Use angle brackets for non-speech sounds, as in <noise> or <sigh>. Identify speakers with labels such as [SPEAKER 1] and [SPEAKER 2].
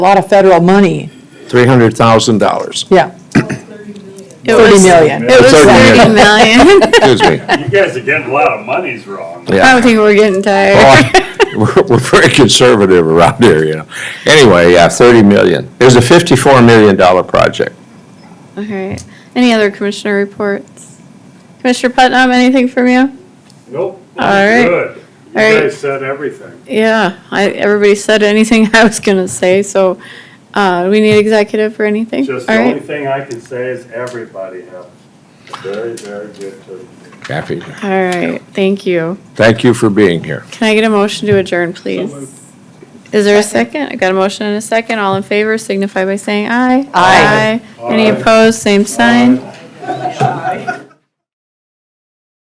[SPEAKER 1] lot of federal money,
[SPEAKER 2] $300,000.
[SPEAKER 1] yeah,
[SPEAKER 3] It
[SPEAKER 1] 30
[SPEAKER 3] was-
[SPEAKER 1] million.
[SPEAKER 3] It was
[SPEAKER 2] 30
[SPEAKER 3] thirty million. <laughs>
[SPEAKER 2] Excuse me.
[SPEAKER 4] You guys are getting a lot of monies wrong.
[SPEAKER 3] I don't
[SPEAKER 2] Yeah.
[SPEAKER 3] think we're getting tired.
[SPEAKER 2] <laughs> Well, We're we're very conservative around here, you know. Anyway, yeah, 30 million. It was a $54 million project.
[SPEAKER 3] <laughs> All right. Any other commissioner reports? Commissioner Putnam, anything from you?
[SPEAKER 4] Nope.
[SPEAKER 3] All right.
[SPEAKER 4] Good. You
[SPEAKER 3] All right.
[SPEAKER 4] guys said everything.
[SPEAKER 3] Yeah, I, everybody said anything <laughs> I was gonna say, so, uh, we need executive for anything?
[SPEAKER 4] Just
[SPEAKER 3] All
[SPEAKER 4] the
[SPEAKER 3] right.
[SPEAKER 4] only thing I can say is everybody have very, very good turkey.
[SPEAKER 2] Happy.
[SPEAKER 3] All right, thank you.
[SPEAKER 2] Thank you for being here.
[SPEAKER 3] Can I get a motion to adjourn, please? Is there a second? I got a motion and a second. All in favor signify by saying aye.
[SPEAKER 1] Aye.
[SPEAKER 3] Any
[SPEAKER 4] Aye.
[SPEAKER 3] opposed, same sign.